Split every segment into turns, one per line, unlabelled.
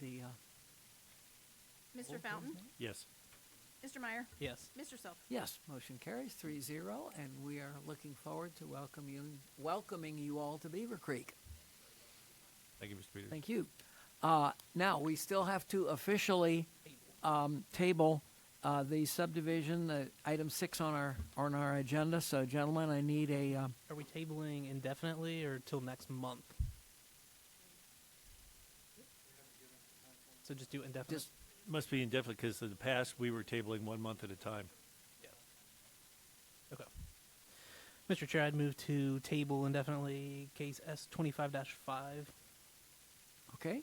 the, uh,
Mr. Fountain?
Yes.
Mr. Meyer?
yes.
Mr. Self?
Yes, motion carries three zero, and we are looking forward to welcome you, welcoming you all to Beaver Creek.
Thank you, Mr. Peters.
Thank you. Uh, now, we still have to officially, um, table, uh, the subdivision, uh, item six on our, on our agenda. So gentlemen, I need a, um,
Are we tabling indefinitely or till next month? So just do indefinite.
just,
Must be indefinite, because in the past, we were tabling one month at a time.
okay. Mr. Chair, I'd move to table indefinitely case S twenty-five five.
okay?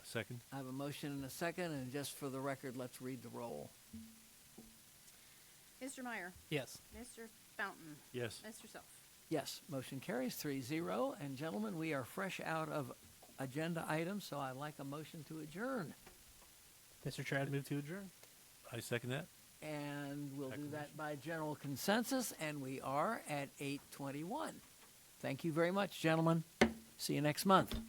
A second?
I have a motion and a second, and just for the record, let's read the roll.
Mr. Meyer?
Yes.
Mr. Fountain?
Yes.
Mr. Self?
Yes, motion carries three zero. And gentlemen, we are fresh out of agenda items, so I'd like a motion to adjourn.
Mr. Chair, I'd move to adjourn.
I second that?
And we'll do that
Acclamation.
by general consensus, and we are at eight twenty-one. Thank you very much, gentlemen. See you next month.